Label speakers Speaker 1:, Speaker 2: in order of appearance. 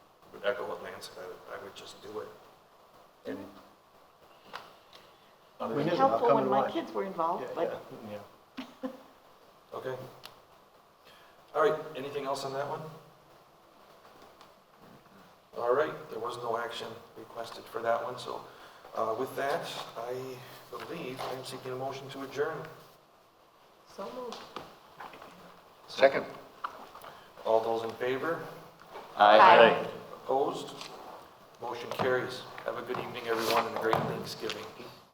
Speaker 1: echo what Lance said, I would, I would just do it. And. Other
Speaker 2: We
Speaker 1: than-
Speaker 2: knew.
Speaker 3: helpful
Speaker 2: come
Speaker 3: when
Speaker 2: and
Speaker 3: my
Speaker 2: watch.
Speaker 3: kids were involved,
Speaker 2: Yeah,
Speaker 3: but
Speaker 2: yeah.
Speaker 1: Okay. All right, anything else on that one? All right, there was no action requested for that one, so uh, with that, I believe I'm seeking a motion to adjourn.
Speaker 3: so moved.
Speaker 4: Second.
Speaker 1: All those in favor?
Speaker 3: Aye.
Speaker 1: Opposed? Motion carries. Have a good evening, everyone, and a great Thanksgiving.